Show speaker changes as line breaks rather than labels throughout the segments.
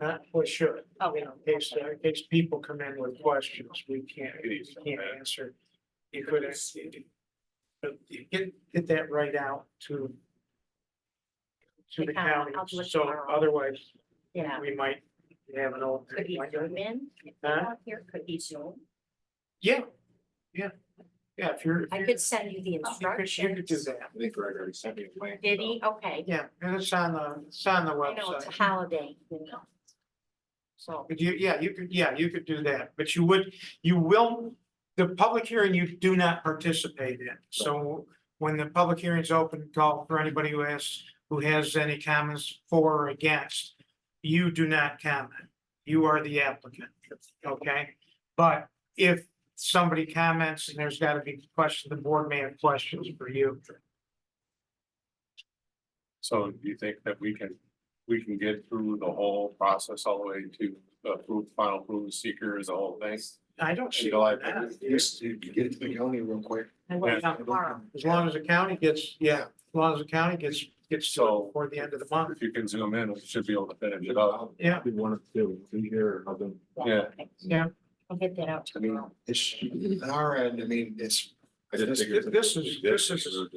Not for sure.
Oh,
You know, in case, uh, in case people come in with questions, we can't, we can't answer. You could, ask- but you get, get that right out to to the
The county,
county,
I'll do it
so
tomorrow.
otherwise
Yeah,
we might have an old.
could be Zoom in, if they're
Huh?
not here, could be Zoom.
Yeah, yeah, yeah, if you're. if
I
you're-
could send you the
You could, you could do
instructions.
that.
I think Greg already sent me a link.
Did he? Okay,
Yeah, and it's on the, it's on the
I know it's a
website.
holiday, you know. So,
But you, yeah, you could, yeah, you could do that, but you would, you will, the public hearing you do not participate in. So when the public hearing is open, call for anybody who has, who has any comments for or against. You do not comment. You are the applicant, okay? But if somebody comments and there's gotta be questions, the board may have questions for you.
So do you think that we can, we can get through the whole process all the way to approve, final approval seeker is the whole thing?
I don't see.
July
that.
Just to get to the county real quick.
I will
Yeah.
tomorrow.
As long as the county gets, yeah, as long as the county gets, gets to it
So-
before the end of the month.
If you can zoom in, we should be able to finish it up.
Yeah.
We wanted to be here, have them.
Yeah.
okay.
Yeah.
I'll get that out
I mean,
tomorrow.
it's
Mm-hmm.
on our end, I mean, it's,
I did
This-
figure-
this is- this is-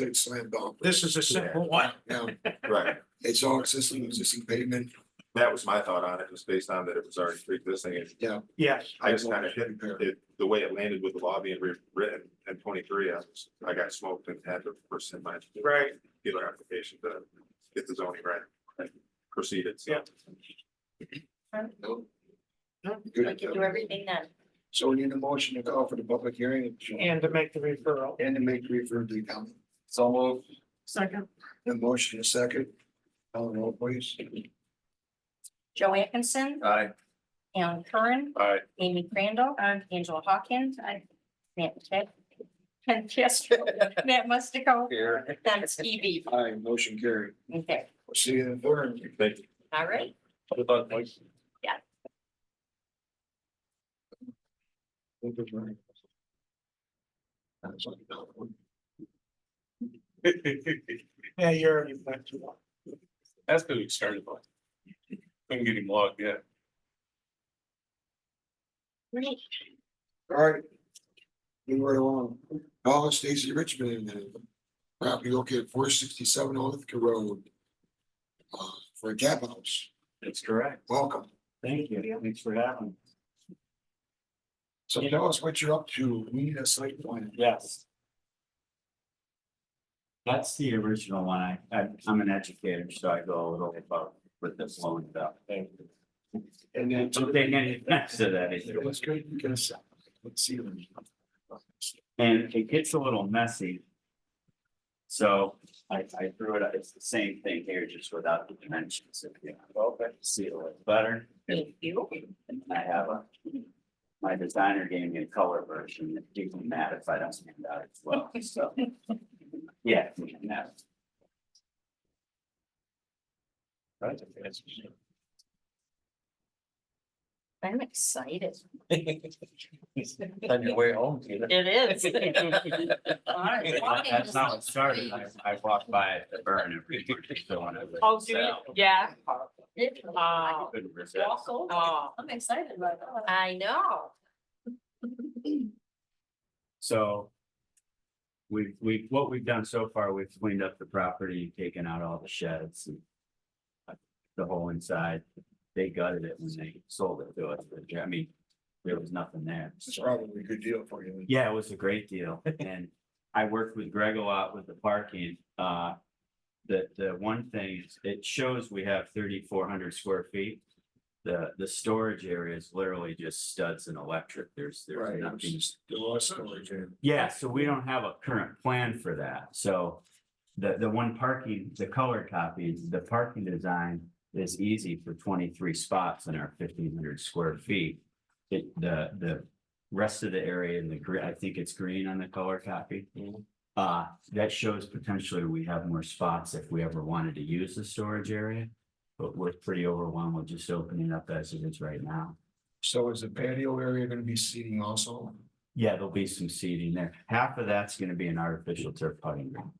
it's a slam dunk.
This is a simple one.
Now,
Right,
it's all existing, existing pavement.
that was my thought on it, was based on that it was already pre-existing, and
Yes,
I just kind of hit it, the way it landed with the law being rewritten in twenty-three, I was, I got smoked and had to present my
right.
dealer application to get the zoning right. and Proceeded, so.
Yeah.
Nope.
Nope.
Good.
I can do everything then.
So we need a motion to call for the public hearing.
And to make the referral.
And to make refer to the county.
So move.
Second.
The motion is second. Call the roll, please.
Joe Atkinson,
Aye.
Alan Curran,
Aye.
Amy Crandall, Angela Hawkins, Matt, Ted, Ken Castro, Matt Mustico,
Here.
Dennis Eby.
Aye, motion carried.
Okay,
We'll See you in the third.
Thank you.
all right.
Yeah, you're already back to one.
That's because we started like. Couldn't get him logged yet.
Great.
All right. We were along. Call of Stacy Richmond. and Property located four sixty-seven Olithka Road. Uh, for a cab house.
That's correct.
Welcome.
Thank you. Thanks for having. me.
So tell us what you're up to. We need a site plan.
Yes. That's the original one. I, I- I'm an educator, so I go a little above with this one stuff. Thank you.
And then.
Don't take any offense to that either.
It was good. You can sell. Let's see. them.
And it gets a little messy. So I, I threw it, out. it's the same thing here, just without the dimensions. If you
Okay.
see it a little better.
Thank you.
And I have a, my designer gave me a color version, it didn't matter if I don't hand out as well, so. Yeah, and that's-
I'm excited.
On your way home, Peter.
It is. All right.
that's not what started, I, I walked by at the burn every morning, so when I was.
Oh, do you? Yeah.
I
Oh,
Couldn't resist.
walk over. I'm excited about that. I know.
So. We've, we've, what we've done so far, we've cleaned up the property, taken out all the sheds and. uh, The whole inside, they gutted it when they sold it to us, but, I mean, there was nothing there.
It's
so-
probably a good deal for you.
Yeah, it was a great deal, and I worked with Greg a lot with the parking, uh. The, the one thing is, it shows we have thirty-four hundred square feet. The, the storage area is literally just studs and electric, there's,
Right.
there's nothing
The last story, Jim.
yeah, so we don't have a current plan for that, so. The, the one parking, the color copy, the parking design is easy for twenty-three spots in our fifteen hundred square feet. It, the, the rest of the area in the green, I think it's green on the color copy. Uh, that shows potentially we have more spots if we ever wanted to use the storage area. But we're pretty overwhelmed with just opening up as it is right now.
So is the patio area gonna be seating also?
Yeah, there'll be some seating there. Half of that's gonna be an artificial turf putting ground.